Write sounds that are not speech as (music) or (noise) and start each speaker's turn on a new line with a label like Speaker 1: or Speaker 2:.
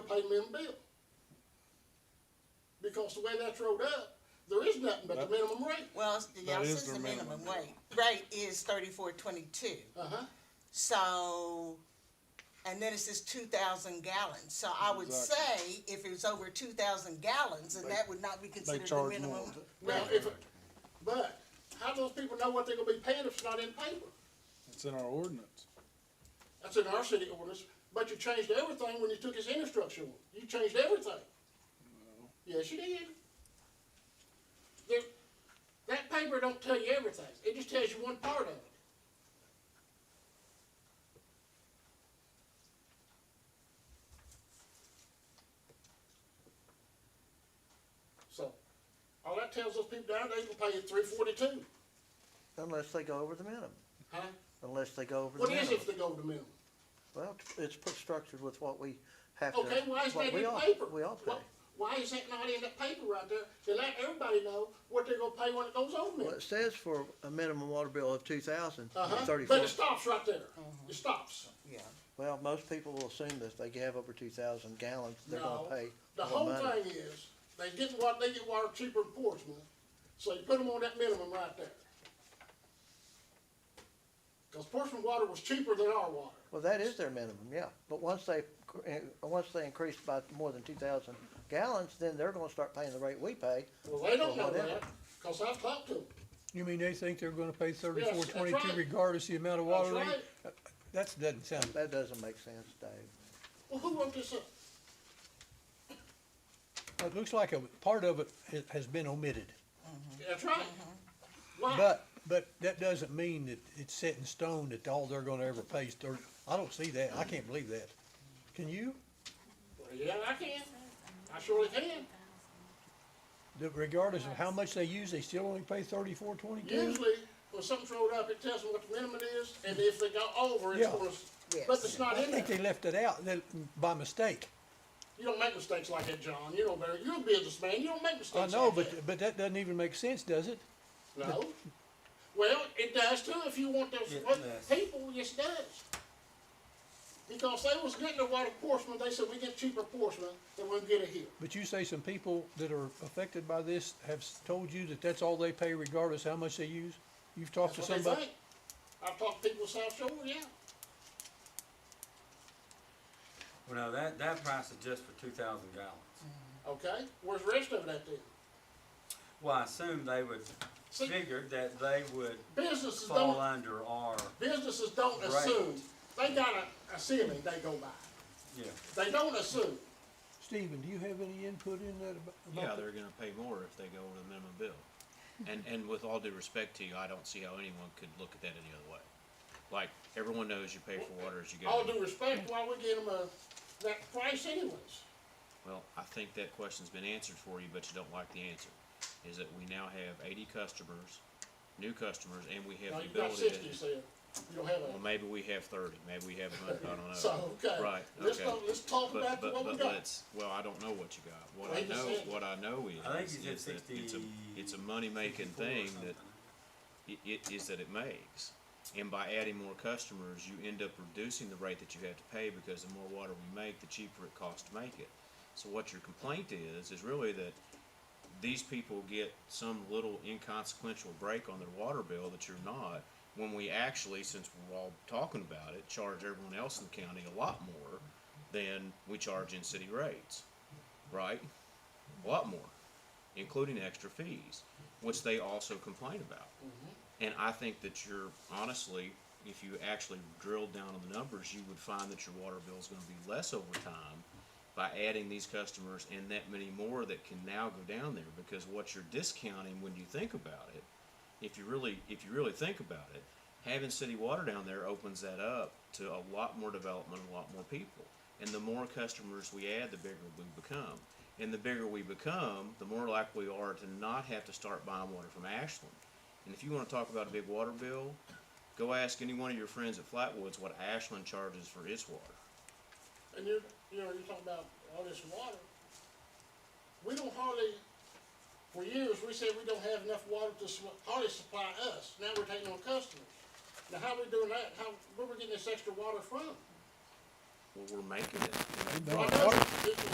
Speaker 1: pay me a bill. Because the way that's rolled up, there is nothing but the minimum rate.
Speaker 2: Well, it's- y'all
Speaker 3: That is
Speaker 2: says
Speaker 3: their
Speaker 2: the minimum
Speaker 3: minimum.
Speaker 2: wage, rate is thirty-four twenty-two,
Speaker 1: Uh-huh.
Speaker 2: so, and then it says two thousand gallons, so I would say if it was over two thousand gallons, then
Speaker 3: They-
Speaker 2: that would not be considered the
Speaker 3: charge
Speaker 2: minimum.
Speaker 3: more.
Speaker 1: Now,
Speaker 2: rate.
Speaker 1: if, it- but how do those people know what they're gonna be paying if it's not in paper?
Speaker 3: It's in our ordinance.
Speaker 1: That's in our city ordinance, but you changed everything when you took his infrastructure. away. You changed everything. Yes, you did. There- that paper don't tell you everything. It just tells you one part of it. So, all that tells those people down there, they can pay you three forty-two,
Speaker 4: Unless they go over the minimum,
Speaker 1: huh?
Speaker 4: unless they go over the
Speaker 1: What is
Speaker 4: minimum.
Speaker 1: it if they go to minimum?
Speaker 4: Well, it's put structured with what we have to.
Speaker 1: Okay, why is
Speaker 4: what
Speaker 1: that
Speaker 4: we
Speaker 1: in
Speaker 4: all-
Speaker 1: paper?
Speaker 4: We all pay.
Speaker 1: Why- Why is that not in that paper right there to let everybody know what they're gonna pay when it goes over
Speaker 4: Well,
Speaker 1: there?
Speaker 4: it says for a minimum water bill of two thousand and
Speaker 1: Uh-huh,
Speaker 4: thirty-four.
Speaker 1: but it stops right there. It stops.
Speaker 2: Yeah,
Speaker 4: Well, most people will assume that if they have over two thousand gallons, they're
Speaker 1: No,
Speaker 4: gonna pay
Speaker 1: the
Speaker 4: more
Speaker 1: whole
Speaker 4: money.
Speaker 1: thing is, they get what, they get water cheaper in Portsmouth, so you put them on that minimum right there. Cause Portsmouth water was cheaper than our water.
Speaker 4: Well, that is their minimum, yeah. But once they, cr- eh, once they increase by more than two thousand gallons, then they're gonna start paying the rate we pay.
Speaker 1: Well, they don't
Speaker 4: Well,
Speaker 1: know
Speaker 4: whatever.
Speaker 1: that, cause I've talked to them.
Speaker 5: You mean they think they're gonna pay thirty-four
Speaker 1: that's right.
Speaker 5: twenty-two regardless the amount of
Speaker 1: That's
Speaker 5: water rate?
Speaker 1: right.
Speaker 5: That's, doesn't sound,
Speaker 4: That doesn't make sense, Dave.
Speaker 1: Well, who wrote this up?
Speaker 5: it looks like a, part of it ha- has been omitted.
Speaker 1: That's right. Why?
Speaker 5: But, but that doesn't mean that it's set in stone that all they're gonna ever pay is thirty, I don't see that, I can't believe that. Can you?
Speaker 1: Well, Yeah, I can. I surely can.
Speaker 5: That regardless of how much they use, they still only pay thirty-four twenty-two?
Speaker 1: Usually, when something's rolled up, it tells them what the minimum is, and if they go over, it's
Speaker 5: Yeah.
Speaker 1: gonna,
Speaker 2: Yes.
Speaker 1: but it's not
Speaker 5: I
Speaker 1: in
Speaker 5: think they
Speaker 1: there.
Speaker 5: left it out, they- by mistake.
Speaker 1: You don't make mistakes like that, John, you know better, you're a businessman, you don't make
Speaker 5: I
Speaker 1: mistakes
Speaker 5: know,
Speaker 1: like that.
Speaker 5: but, but that doesn't even make sense, does it?
Speaker 1: No. Well, it does too, if you want those people, yes, it does. Because they was getting the water Portsmouth, they said, we get cheaper Portsmouth than we get it here.
Speaker 5: But you say some people that are affected by this have s- told you that that's all they pay regardless how much they use? You've talked
Speaker 1: That's
Speaker 5: to
Speaker 1: what they
Speaker 5: somebody?
Speaker 1: think. I've talked to people South Shore, yeah.
Speaker 6: Well, now that, that price is just for two thousand gallons.
Speaker 1: Okay, where's the rest of it at then?
Speaker 6: Well, I assume they would
Speaker 1: See-
Speaker 6: figure that they would
Speaker 1: Businesses don't
Speaker 6: fall under our,
Speaker 1: Businesses don't
Speaker 6: Right.
Speaker 1: assume, they got a, a ceiling they go by.
Speaker 6: yeah.
Speaker 1: They don't assume.
Speaker 5: Stephen, do you have any input in that abo-
Speaker 7: Yeah,
Speaker 5: about? that?
Speaker 7: they're gonna pay more if they go over the minimum bill. And, and with all due respect to you, I don't see how anyone could look at that any other way. Like, everyone knows you pay for water as you
Speaker 1: All
Speaker 7: go.
Speaker 1: due respect, why we give them a, that price anyways?
Speaker 7: Well, I think that question's been answered for you, but you don't like the answer. Is that we now have eighty customers, new customers, and we
Speaker 1: Now,
Speaker 7: have the
Speaker 1: you got
Speaker 7: ability
Speaker 1: sixty, you
Speaker 7: to.
Speaker 1: said, you don't have
Speaker 7: Well,
Speaker 1: a,
Speaker 7: maybe we have thirty, maybe we have a hundred, I don't
Speaker 1: (laughs)
Speaker 7: know.
Speaker 1: so, okay.
Speaker 7: Right,
Speaker 1: Let's,
Speaker 7: okay.
Speaker 1: talk- let's talk
Speaker 7: But,
Speaker 1: about
Speaker 7: but,
Speaker 1: what we
Speaker 7: but
Speaker 1: got.
Speaker 7: let's, well, I don't know what you got. What I
Speaker 1: Like you
Speaker 7: know,
Speaker 1: said-
Speaker 7: what I know is,
Speaker 6: I think you
Speaker 7: is
Speaker 6: said
Speaker 7: that it's a, it's a money-making
Speaker 6: 54 or
Speaker 7: thing that
Speaker 6: something.
Speaker 7: i- i- is that it makes. And by adding more customers, you end up reducing the rate that you have to pay because the more water we make, the cheaper it costs to make it. So what your complaint is, is really that these people get some little inconsequential break on their water bill that you're not, when we actually, since we're all talking about it, charge everyone else in the county a lot more than we charge in city rates, right? A lot more, including extra fees, which they also complain about. And I think that you're honestly, if you actually drilled down on the numbers, you would find that your water bill is going to be less over time by adding these customers and that many more that can now go down there because what you're discounting when you think about it, if you really if you really think about it, having city water down there opens that up to a lot more development, a lot more people. And the more customers we add, the bigger we become. And the bigger we become, the more likely we are to not have to start buying water from Ashland. And if you want to talk about a big water bill, go ask any one of your friends at Flatwoods what Ashland charges for its water.
Speaker 1: And you, you know, you're talking about all this water. We don't hardly, for years, we said we don't have enough water to su- hardly supply us. Now we're taking on customers. Now, how we doing that? How, where we getting this extra water from?
Speaker 8: well, we're making it.
Speaker 1: We've
Speaker 7: I
Speaker 1: done
Speaker 7: know
Speaker 1: it.
Speaker 7: it-